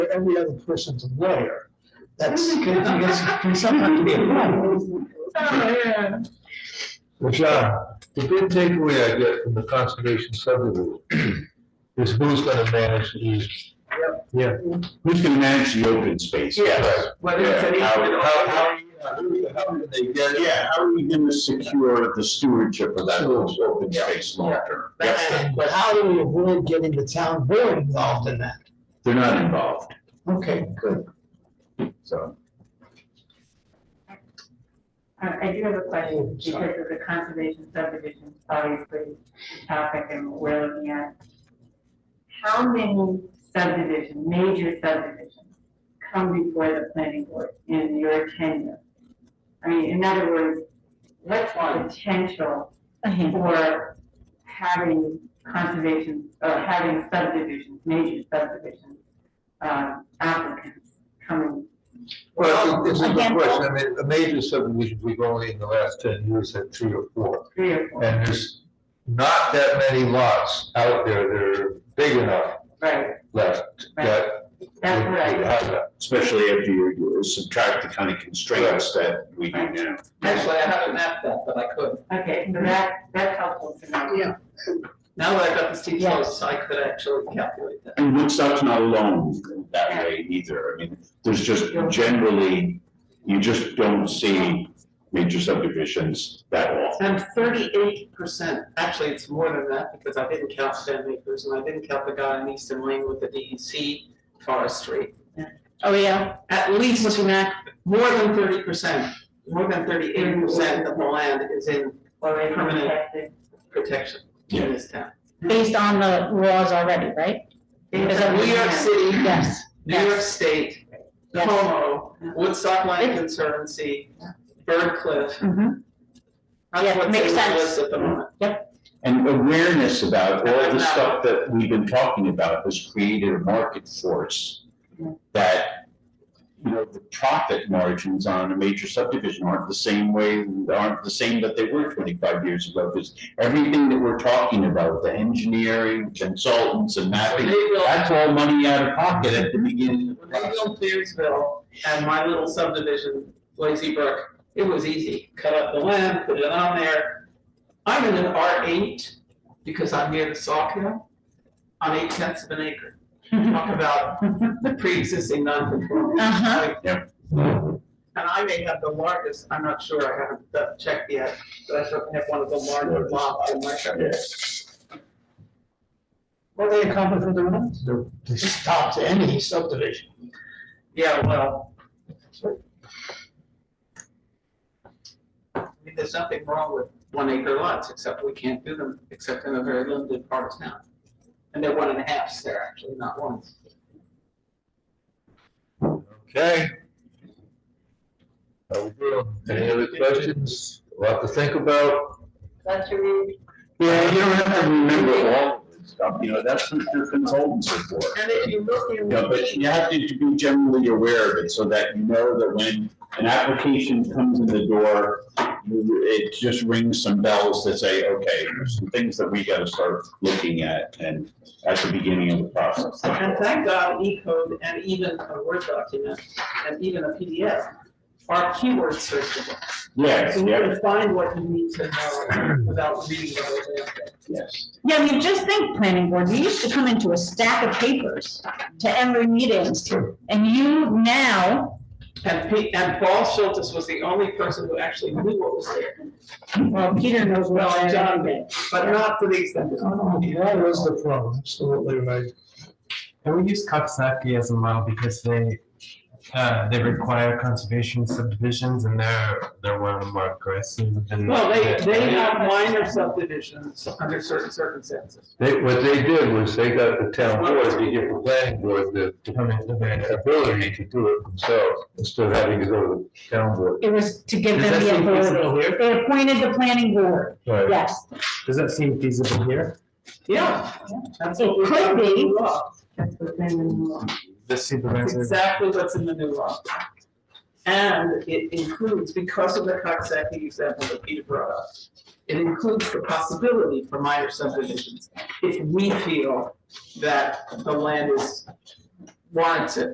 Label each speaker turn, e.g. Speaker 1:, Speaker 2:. Speaker 1: every other person's a lawyer. That's, can sometimes be a problem.
Speaker 2: John, the big takeaway I get from the conservation subdivision is who's gonna manage these. Yeah.
Speaker 3: Who's gonna manage the open space?
Speaker 2: Yes.
Speaker 1: Whether it's an
Speaker 3: Yeah, how-
Speaker 1: easement or-
Speaker 3: how- how-
Speaker 2: How do they get?
Speaker 3: Yeah, how are we gonna secure the stewardship of that
Speaker 2: Sure.
Speaker 3: open space long term? Yes,
Speaker 1: But how do we avoid getting the town board involved in that?
Speaker 3: They're not involved,
Speaker 1: Okay, good.
Speaker 3: so.
Speaker 4: I I do have a question, because of the conservation subdivision, obviously, topic and what we're looking at. How many subdivision, major subdivisions, come before the planning board in your tenure? I mean, in other words, what's the potential for having conservation, or having subdivisions, major subdivisions, um, applicants coming?
Speaker 2: Well, this is the
Speaker 5: Again,
Speaker 2: question, I mean, the major subdivision we've only in the last ten years had three or four.
Speaker 4: Three or four,
Speaker 2: And there's not that many lots out there that are big enough
Speaker 4: right,
Speaker 2: left
Speaker 4: Right.
Speaker 2: that.
Speaker 4: that's what I.
Speaker 2: would have that.
Speaker 3: Especially if you you subtract the kind of constraints that we do now.
Speaker 6: Actually, I haven't mapped that, but I could.
Speaker 4: Okay, so that, that's helpful to know.
Speaker 1: Yeah.
Speaker 6: Now that I've got the steep slopes, I could actually calculate that.
Speaker 3: And Woodstock's not alone that way either, I mean, there's just generally, you just don't see major subdivisions that often.
Speaker 6: And thirty-eight percent, actually, it's more than that, because I didn't count Stan Acres, and I didn't count the guy in Eastern Lane with the DEC forestry.
Speaker 5: Oh, yeah.
Speaker 6: At least, more than thirty percent, more than thirty-eight percent of the land is in
Speaker 4: Or if you
Speaker 6: Permanent.
Speaker 4: have to-
Speaker 6: protection in this town.
Speaker 5: Based on the laws already, right?
Speaker 6: New
Speaker 5: Is that-
Speaker 6: York City,
Speaker 5: Yes.
Speaker 6: New York State,
Speaker 5: Yes.
Speaker 6: Como, Woodstock Land Conservancy, Bird Cliff.
Speaker 5: Mhm.
Speaker 6: That's
Speaker 5: Yeah,
Speaker 6: what's
Speaker 5: makes
Speaker 6: in the
Speaker 5: sense.
Speaker 6: list at the moment.
Speaker 3: And awareness about all
Speaker 6: About
Speaker 3: the
Speaker 6: that.
Speaker 3: stuff that we've been talking about has created a market force
Speaker 6: Mm-hmm.
Speaker 4: Yeah.
Speaker 3: that, you know, the profit margins on a major subdivision aren't the same way, aren't the same that they were twenty-five years ago. Because everything that we're talking about, the engineering, consultants and
Speaker 6: They
Speaker 3: mapping,
Speaker 6: will,
Speaker 3: that's all money out of pocket at the beginning of the
Speaker 6: when they
Speaker 3: process.
Speaker 6: built Clearsville and my little subdivision, Lazy Brook, it was easy, cut up the land, put it on there. I'm in an R eight, because I'm near the Sawkill, on eight tenths of an acre. Talk about pre-existing non-conforming.
Speaker 5: Uh-huh.
Speaker 6: Like, And I may have the largest, I'm not sure, I haven't uh, checked yet, but I certainly have one of the largest
Speaker 3: Largest.
Speaker 6: lots in my area.
Speaker 1: What do they accomplish with the ones? They stopped any subdivision.
Speaker 6: Yeah, well. I mean, there's nothing wrong with one acre lots, except we can't do them, except in a very limited part of town. And they're one and a halfs there, actually, not ones.
Speaker 2: Okay. How we doing? Any other questions? A lot to think about?
Speaker 4: That's your read.
Speaker 3: Yeah, you don't have to remember all of this stuff, you know, that's what your consultants are for.
Speaker 6: And if you look in.
Speaker 3: Yeah, but you have to be generally aware of it so that you know that when an application comes in the door, you- it just rings some bells that say, okay, there's some things that we gotta start looking at and at the beginning of the process.
Speaker 6: And thank God, E code and even a Word document and even a PDF are keyword searchable.
Speaker 3: Yes,
Speaker 6: So you
Speaker 3: yeah,
Speaker 6: can find what you need to know without reading the whole damn thing.
Speaker 3: yes.
Speaker 5: Yeah, I mean, just think, planning board, you used to come into a stack of papers to every meeting. And you now,
Speaker 6: And Pete, and Paul Schultes was the only person who actually knew what was there,
Speaker 5: well, Peter knows well.
Speaker 6: Well, John did. but not to the extent. that-
Speaker 1: That was the problem, absolutely right.
Speaker 7: And we use Coxsackie as a model because they, uh, they require conservation subdivisions and they're, they're one of the more aggressive and.
Speaker 6: Well, they, they have minor subdivisions under certain circumstances.
Speaker 2: They, what they did was they got the town board, to give the planning board the, the ability to do it themselves instead of having to go to the town board.
Speaker 5: It was to give them
Speaker 7: Does
Speaker 5: the
Speaker 7: that seem feasible
Speaker 5: authority.
Speaker 7: here?
Speaker 5: They appointed the planning board,
Speaker 2: Right.
Speaker 5: yes.
Speaker 7: Does that seem feasible here?
Speaker 6: Yeah. That's
Speaker 5: It
Speaker 6: what we're
Speaker 5: could
Speaker 6: doing in
Speaker 5: be.
Speaker 6: the law.
Speaker 4: That's what's in the new law.
Speaker 7: The
Speaker 6: That's
Speaker 7: supervisor.
Speaker 6: exactly what's in the new law. And it includes, because of the Coxsackie example that Peter brought up, it includes the possibility for minor subdivisions if we feel that the land is warrants it